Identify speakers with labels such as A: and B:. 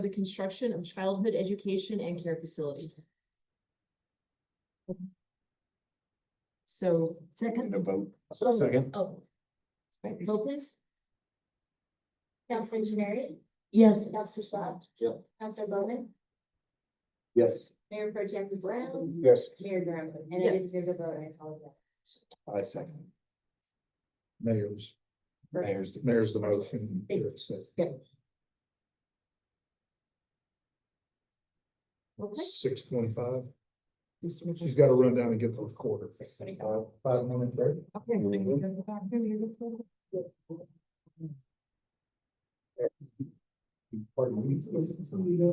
A: for the construction of childhood education and care facility. So second,
B: a vote.
C: Second.
A: oh, right, vote please.
D: Councilman Javari,
A: Yes.
D: Councilman Schwartz.
B: Yep.
D: Councilman Bowman,
B: Yes.
D: Mayor Pro Tem Brown,
B: Yes.
D: Mayor Durham, and it is
A: Yes.
D: your vote, I apologize.
B: I second.
C: Mayor's,
B: Mayor's.
C: mayor's the motion. Derek's second.
A: Okay.
C: Six twenty-five. She's gotta run down and get the recorder.
D: Six twenty-five.
C: Five minutes, right? Pardon me.